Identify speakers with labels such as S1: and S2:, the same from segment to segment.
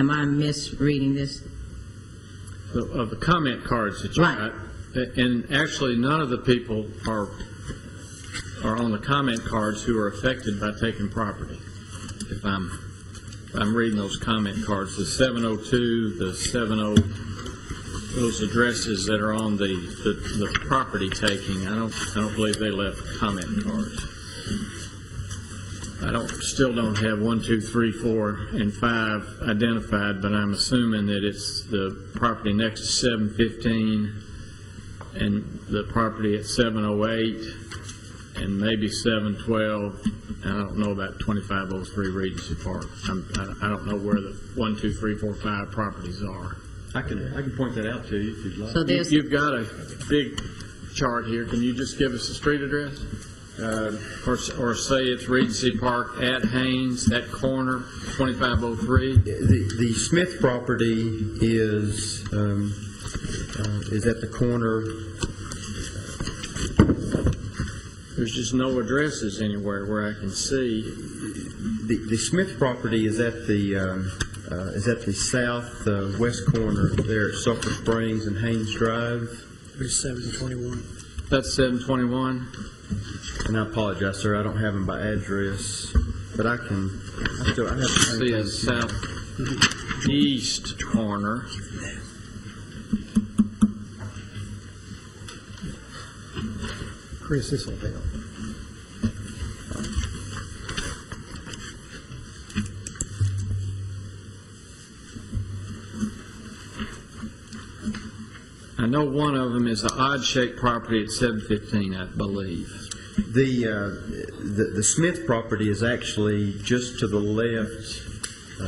S1: Am I misreading this?
S2: the- of the comment cards that you
S1: Right.
S2: got. A- And actually, none of the people are, are on the comment cards who are affected by taking property. If I'm, if I'm reading those comment cards, the 702, the 70, those addresses that are on the, the the property taking, I don't, I don't believe they left comment cards. I don't, still don't have one, two, three, four, and five identified, but I'm assuming that it's the property next to seven fifteen and the property at seven oh eight and maybe seven twelve. And I don't know about twenty-five oh three Regency Park. I'm, I I don't know where the one, two, three, four, five properties are.
S3: I can, I can point that out to you if you'd like.
S1: So there's,
S2: You've got a big chart here. Can you just give us the street address? Uh, Or, s- or say it's Regency Park at Haynes, that corner, 2503?
S3: The, the Smith property is, um, uh, is at the corner,
S2: There's just no addresses anywhere where I can see.
S3: the, the Smith property is at the, um, uh, is at the south, uh, west corner there at Sulphur Springs and Haynes Drive.
S4: It's seven twenty-one.
S2: That's 721?
S3: And I apologize, sir, I don't have them by address, but I can, I still, I have.
S2: See a southeast corner.
S4: Chris, this will help.
S2: I know one of them is the odd-shaped property at 715, I believe.
S3: The, uh, the, the Smith property is actually just to the left,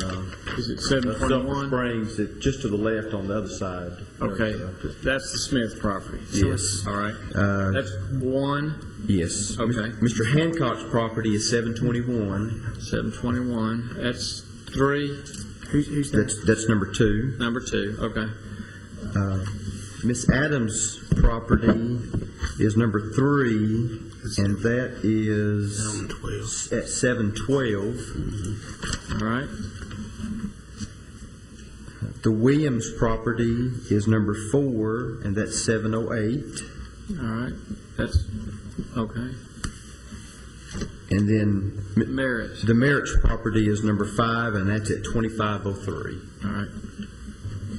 S3: uh,
S2: Is it
S3: of Sulphur Springs, it- just to the left on the other side.
S2: Okay, that's the Smith property.
S3: Yes.
S2: All right.
S3: Uh,
S2: That's one,
S3: Yes.
S2: Okay.
S3: Mr. Hancock's property is 721.
S2: 721, that's three,
S3: That's, that's number two.
S2: number two, okay.
S3: Uh, Miss Adams' property is number three, and that is at 712.
S2: All right,
S3: The Williams property is number four, and that's 708.
S2: all right, that's, okay.
S3: And then Mi-
S2: Merritt,
S3: the Merritt's property is number five, and that's at 2503.
S2: all right.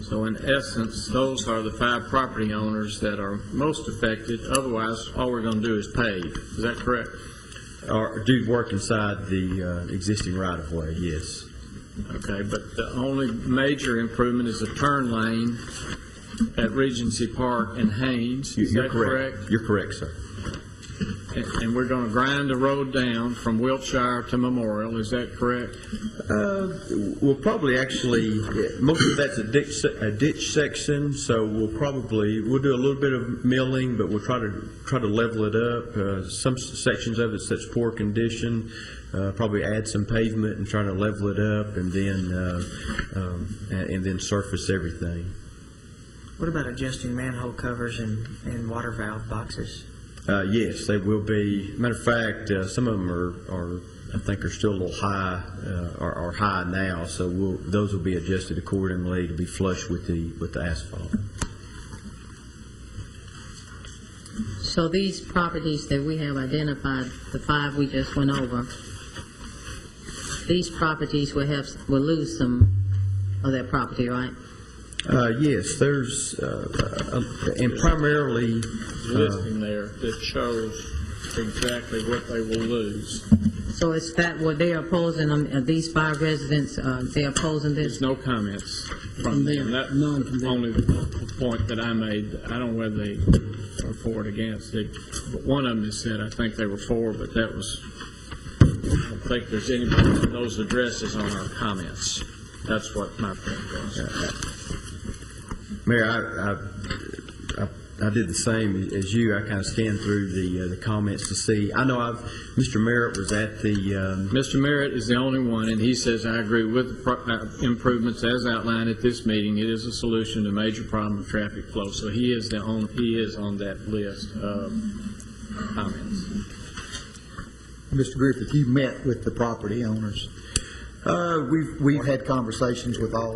S2: So in essence, those are the five property owners that are most affected. Otherwise, all we're going to do is pave. Is that correct?
S3: Or do work inside the uh, existing right-of-way, yes.
S2: Okay, but the only major improvement is a turn lane at Regency Park and Haynes.
S3: You-
S2: Is
S3: You're
S2: that correct?
S3: You're correct, sir.
S2: And and we're going to grind the road down from Wiltshire to Memorial, is that correct?
S4: Uh-huh.
S3: Uh, We'll probably actually, most of that's a ditch, se- a ditch section, so we'll probably, we'll do a little bit of milling, but we'll try to, try to level it up. Uh, Some s- sections of it's such poor condition, uh, probably add some pavement and try to level it up and then, uh, um, a- and then surface everything.
S5: What about adjusting manhole covers and, and water valve boxes?
S3: Uh, Yes, they will be. Matter of fact, uh, some of them are, are, I think are still a little high, uh, are, are high now, so we'll, those will be adjusted accordingly to be flush with the, with the asphalt.
S1: so these properties that we have identified, the five we just went over, these properties will have, will lose some of their property, right?
S3: Uh, Yes, there's, uh, uh, and primarily, uh,
S2: Listing there that shows exactly what they will lose.
S1: So is that what they are opposing, um, uh, these five residents, uh, they are opposing
S2: There's
S1: this?
S2: no comments from them. That's
S4: None from them.
S2: Only the point that I made, I don't know whether they are for it against. They- but One of them has said, I think they were for, but that was, I don't think there's anybody with those addresses on our comments. That's what my point was.
S3: Mayor, I- I, I, I did the same as you. I kind of scanned through the, uh, the comments to see. I know I've, Mr. Merritt was at the, um,
S2: Mr. Merritt is the only one, and he says, "I agree with the pro- uh, improvements as outlined at this meeting. It is a solution to major problem of traffic flow." So he is the on, he is on that list of comments.
S6: Mr. Griffith, you met with the property owners
S3: uh, we've, we've
S6: or had conversations with all